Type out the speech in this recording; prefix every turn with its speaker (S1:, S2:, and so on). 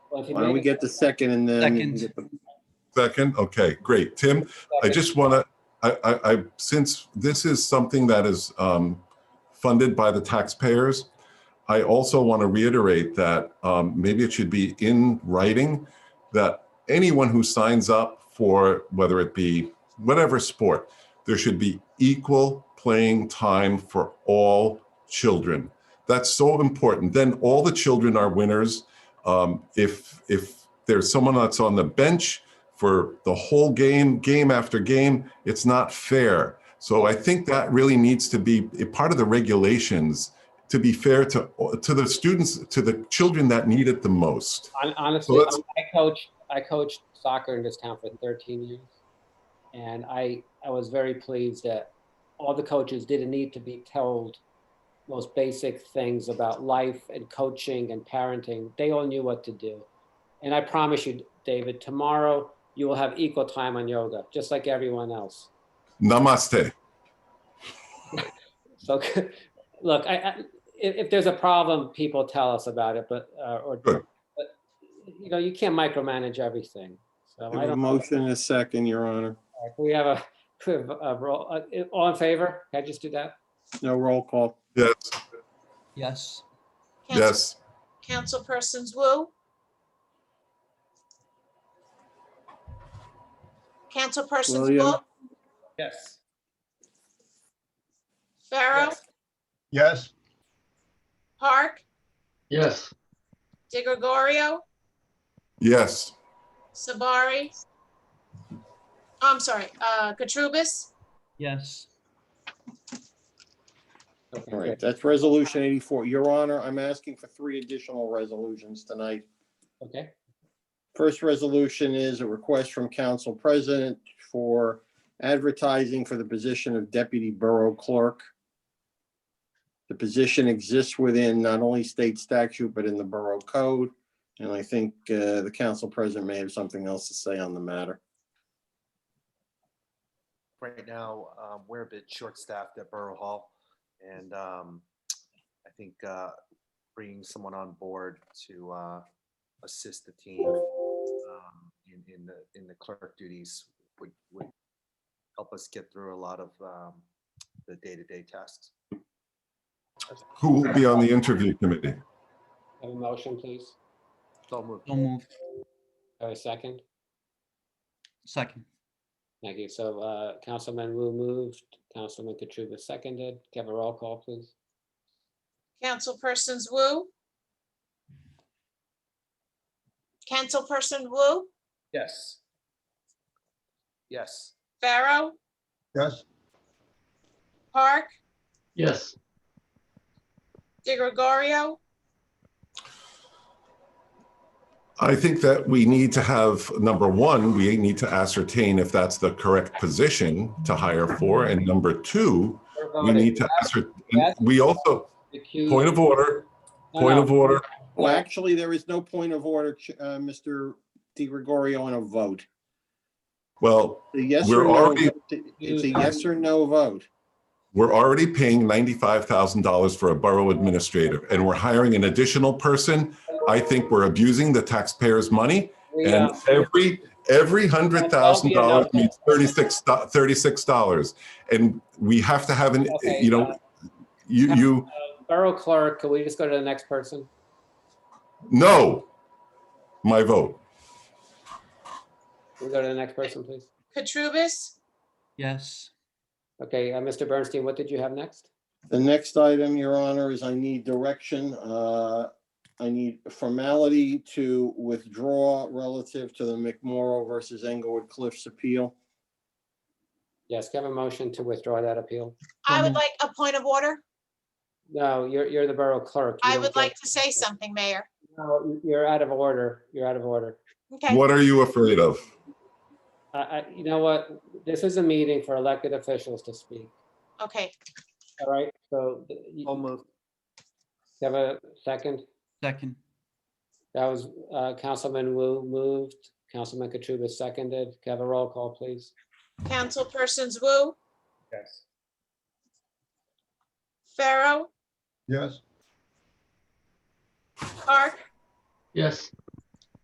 S1: Well, if you
S2: Why don't
S1: make
S2: we
S1: it-
S2: get the second and then? we can
S3: Second.
S2: get the-
S4: Second, okay, great. Tim, I just want to, I, I, I, since this is something that is um, funded by the taxpayers, I also want to reiterate that um, maybe it should be in writing that anyone who signs up for, whether it be whatever sport, there should be equal playing time for all children. That's so important. Then all the children are winners. Um, if if there's someone that's on the bench for the whole game, game after game. It's not fair. So I think that really needs to be a part of the regulations to be fair to to the students, to the children that need it the most.
S1: Hon- Honestly,
S4: let's-
S1: I coached, I coached soccer in this town for 13 years. And I, I was very pleased that all the coaches didn't need to be told most basic things about life and coaching and parenting. They all knew what to do. And I promise you, David, tomorrow you will have equal time on yoga, just like everyone else.
S4: Namaste.
S1: So, look, I, I, if, if there's a problem, people tell us about it, but, uh, or,
S4: Good.
S1: but, you know, you can't micromanage everything. So
S2: We
S1: I
S2: have a
S1: don't.
S2: motion and a second, Your Honor.
S1: We have a, we have a roll, uh, all in favor? Can I just do that?
S2: No roll call.
S4: Yes,
S3: Yes.
S5: Council-
S4: yes.
S5: Councilpersons Wu? Councilpersons Wu,
S2: William.
S1: Yes.
S5: Pharaoh,
S6: Yes.
S5: Park,
S6: Yes.
S5: De Gregorio,
S4: Yes,
S5: Sabari. I'm sorry, uh, Katrubis,
S3: Yes.
S1: Okay,
S2: All right,
S1: good.
S2: that's resolution eighty-four. Your Honor, I'm asking for three additional resolutions tonight.
S1: Okay,
S2: First resolution is a request from Council President for advertising for the position of Deputy Borough Clerk. The position exists within not only state statute, but in the Borough Code. And I think uh, the Council President may have something else to say on the matter.
S7: right now, um, we're a bit short-staffed at Borough Hall. And, um, I think, uh, bringing someone on board to, uh, assist the team, um, in, in the, in the clerk duties would, would help us get through a lot of, um, the day-to-day tasks.
S4: who will be on the interview committee?
S1: have a motion, please.
S7: So moved.
S3: So moved.
S1: Have a second.
S3: Second.
S1: Thank you. So, uh, Councilman Wu moved, Councilman Katrubis seconded. Can I Have a roll call, please.
S5: Councilpersons Wu? Councilperson Wu,
S7: Yes. Yes.
S5: Pharaoh,
S6: Yes.
S5: Park,
S6: Yes.
S5: De Gregorio,
S4: I think that we need to have, number one, we need to ascertain if that's the correct position to hire for. And number two,
S1: We're
S4: we
S1: voting.
S4: need to ascertain, we also,
S1: Recuse-
S4: point of order,
S1: No,
S4: point
S1: no.
S4: of order.
S2: Well, actually, there is no point of order, Ch- uh, Mr. Di Gregorio, on a vote.
S4: Well,
S2: The yes
S4: We're
S2: or no,
S4: already-
S2: vote- it's a yes or no vote.
S4: we're already paying ninety-five thousand dollars for a borough administrator, and we're hiring an additional person. I think we're abusing the taxpayers' money,
S1: We, uh,
S4: and every, every hundred thousand dollars means thirty-six, thirty-six dollars. And we have to have an,
S1: Okay,
S4: you know,
S1: uh,
S4: you, you,
S1: Borough clerk, can we just go to the next person?
S4: no, my vote,
S1: Can we go to the next person, please?
S5: Katrubis,
S3: Yes.
S1: Okay, uh, Mr. Bernstein, what did you have next?
S2: The next item, Your Honor, is I need direction. uh, I need formality to withdraw relative to the McMorro versus Englewood Cliffs appeal.
S1: Yes, can I have a motion to withdraw that appeal?
S5: I would
S3: Mhm.
S5: like a point of order.
S1: No, you're, you're the borough clerk. You
S5: I
S1: don't
S5: would
S1: get-
S5: like to say something, Mayor.
S1: No, you're out of order. You're out of order.
S5: Okay,
S4: what are you afraid of?
S1: I, I, you know what? This is a meeting for elected officials to speak,
S5: okay.
S1: all right? So th- you
S7: So moved.
S1: you have a second?
S3: Second.
S1: That was uh, Councilman Wu moved, Councilman Katrubis seconded. Can I Have a roll call, please.
S5: Councilpersons Wu,
S1: Yes.
S5: Pharaoh,
S6: Yes.
S5: Park,
S6: Yes.